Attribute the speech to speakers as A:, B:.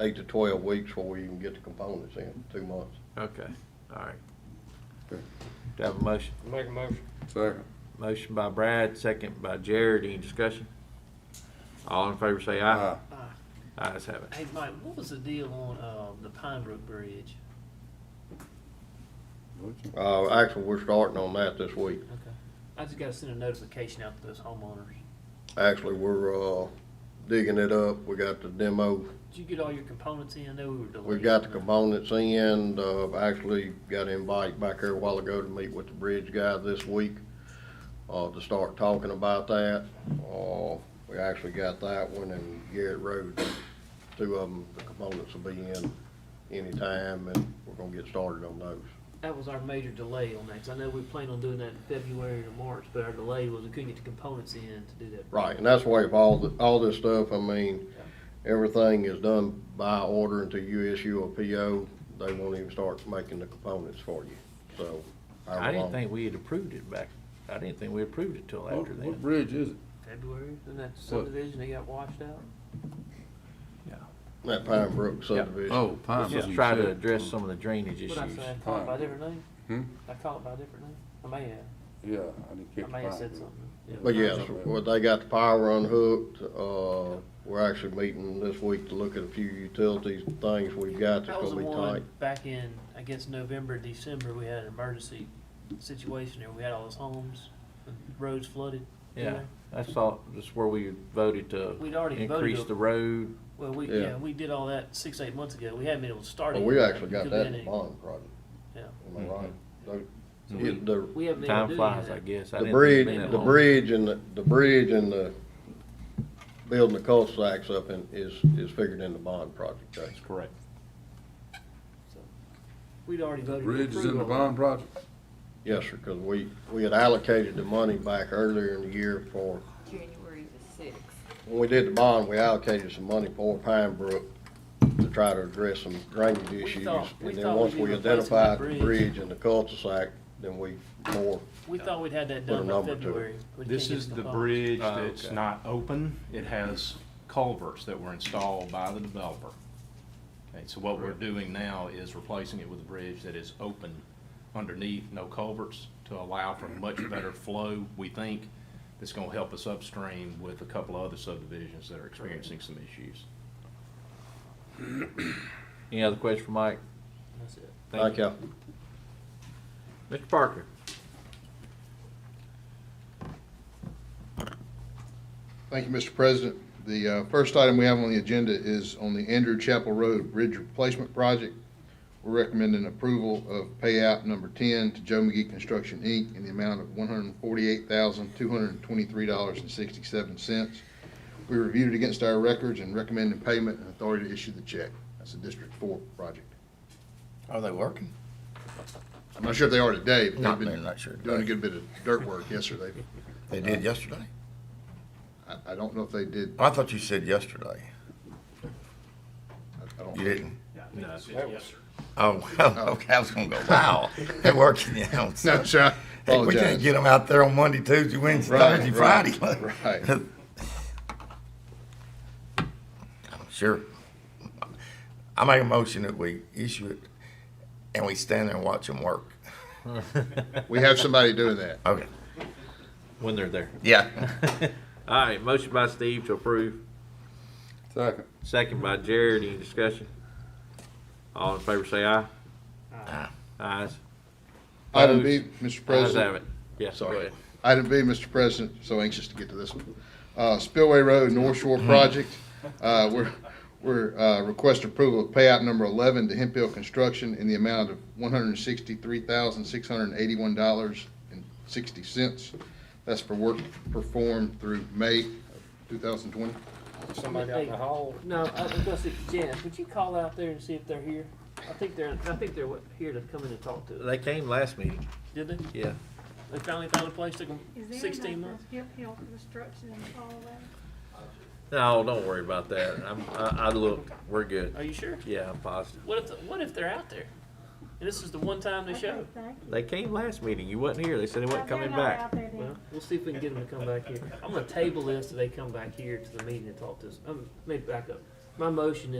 A: eight to twelve weeks before we even get the components in, two months.
B: Okay, all right. Do
C: Okay.
B: I have a motion?
D: Make a motion.
C: Second.
B: Motion by Brad, second by Jared. Any discussion? All in favor say
C: Ah.
B: aye.
E: Uh,
B: Ayes have it.
E: Hey, Mike, what was the deal on, uh, the Pine Brook Bridge?
A: Uh, actually, we're starting on that this week.
E: Okay. I just gotta send a notification out to those homeowners.
A: Actually, we're, uh, digging it up. We got the demo.
E: Did you get all your components in? I know we were delayed.
A: We got the components in, uh, actually got an invite back here a while ago to meet with the bridge guy this week, uh, to start talking about that. Uh, we actually got that one and Garrett Road, two of them, the components will be in anytime and we're gonna get started on those.
E: That was our major delay on that, 'cause I know we planned on doing that in February or March, but our delay was we couldn't get the components in to do that.
A: Right, and that's the way of all, the- all this stuff, I mean, everything is done by order until you issue a PO, they won't even start making the components for you, so. however
B: I didn't
A: long-
B: think we had approved it back, I didn't think we approved it till
C: What,
B: after
C: what
B: then.
C: bridge is it?
E: February, and that subdivision, they got washed out?
B: Yeah.
A: That Pine Brook subdivision.
C: Oh, Pine.
B: Just try to address some of the drainage issues.
E: What'd I say? I called it by a different name?
C: Hmm?
E: I called it by a different name? I may have.
C: Yeah, I didn't catch
E: I may have
C: Pine
E: said
C: Brook.
E: something. Yeah.
A: But yes, well, they got the power unhooked, uh, we're actually meeting this week to look at a few utilities, and things we've got that's
E: That was
A: gonna
E: the
A: be tight.
E: one back in, I guess, November, December, we had an emergency situation there. We had all those homes, and roads flooded. you
B: Yeah,
E: know?
B: that's all, that's where we voted to
E: We'd already voted
B: increase
E: to-
B: the road.
E: Well, we,
A: Yeah.
E: yeah, we did all that six, eight months ago. We hadn't been able to start it.
A: But we actually got
E: Could've
A: that in
E: been any-
A: bond project,
E: Yeah.
A: am I right? The-
B: Mm-hmm. So
A: yeah,
B: we-
A: the-
E: We haven't been able
B: Time
E: to do
B: flies, I
E: that.
B: guess. I
A: The
B: didn't think it'd
A: bridge,
B: been that
A: the
B: long.
A: bridge and the, the bridge and the, building the cul-de-sacs up in, is, is figured in the bond project, right?
F: Correct.
E: So, We'd already voted. to
C: Bridge is in the
E: approve all
C: bond
E: that.
C: project?
A: Yes, sir, because we, we had allocated the money back earlier in the year for,
G: January the sixth.
A: when we did the bond, we allocated some money for Pine Brook to try to address some drainage issues.
E: thought- we
A: And then
E: thought
A: once
E: we'd be
A: we
E: replacing that
A: identified the
E: bridge.
A: bridge and the cul-de-sac, then we more,
E: We thought we'd had that
A: Put a
E: done by
A: number to it.
E: February. We just can't
F: This
E: get
F: is
E: the
F: the
E: funds.
F: bridge
B: Oh,
F: that's
B: okay.
F: not open. It has culverts that were installed by the developer. Okay, so what we're doing now is replacing it with a bridge that is open underneath, no culverts, to allow for much better flow, we think. That's gonna help us upstream with a couple of other subdivisions that are experiencing some issues.
B: Any other questions for Mike?
E: That's it.
A: thank you.
B: Mr. Parker?
H: Thank you, Mr. President. The uh, first item we have on the agenda is on the Andrew Chapel Road Bridge Replacement Project. We're recommending approval of payout number 10 to Joe McGee Construction, Inc. in the amount of $148,223.67. We reviewed it against our records and recommended payment and authority to issue the check. That's a District 4 project.
F: Are they working?
H: I'm not sure if they are today, but
I: Not,
H: they've
I: they're
H: been
I: not sure.
H: doing a good bit of dirt work. Yes, sir, they,
I: They did yesterday.
H: I I don't know if they did,
I: I thought you said yesterday.
H: I- I don't.
I: You didn't?
F: No.
I: Oh, well, okay, I was gonna go, wow, they're working the house.
H: No, sir, I
I: Hey, we can't
H: apologize.
I: get them out there on Monday, Tuesday, Wednesday,
H: Right,
I: Thursday, Friday.
H: right, right.
I: Sure. I make a motion that we issue it and we stand there and watch them work.
H: We have somebody doing that.
I: Okay,
B: When they're there.
I: yeah.
B: All right, motion by Steve to approve,
C: Second.
B: second by Jared. Any discussion? All in favor say aye.
I: Aye.
B: Ayes.
H: Item B, Mr.
B: Ayes have
H: President.
B: it. Yes, go
H: Sorry.
B: ahead.
H: Item B, Mr. President, so anxious to get to this one. Uh, Spillway Road North Shore
I: Mm-hmm.
H: Project, uh, we're, we're, uh, request approval of payout number eleven to Hemp Hill Construction in the amount of one hundred and sixty-three thousand, six hundred and eighty-one dollars and sixty cents. That's for work performed through May of two thousand twenty.
D: Somebody out in the hall.
E: No, I was gonna say, Janice, would you call out there and see if they're here? I think they're, I think they're here to come in and talk to us.
B: They came last meeting,
E: Did they?
B: yeah.
E: They finally found a place, took them
G: Is there
E: sixteen
G: enough
E: months.
G: uphill construction and all that?
B: No, don't worry about that. I'm, I, I look, we're good.
E: Are you sure?
B: Yeah, I'm positive.
E: What if, what if they're out there? And this is the one time they
G: Okay,
E: show?
G: thank you.
B: They came last meeting. You wasn't here. They said they
G: Well,
B: wasn't
G: they're
B: coming
G: not
B: back.
G: out there then.
E: Well, we'll see if we can get them to come back here. I'm gonna table this till they come back here to the meeting and talk to us. Um, let me back up. My motion is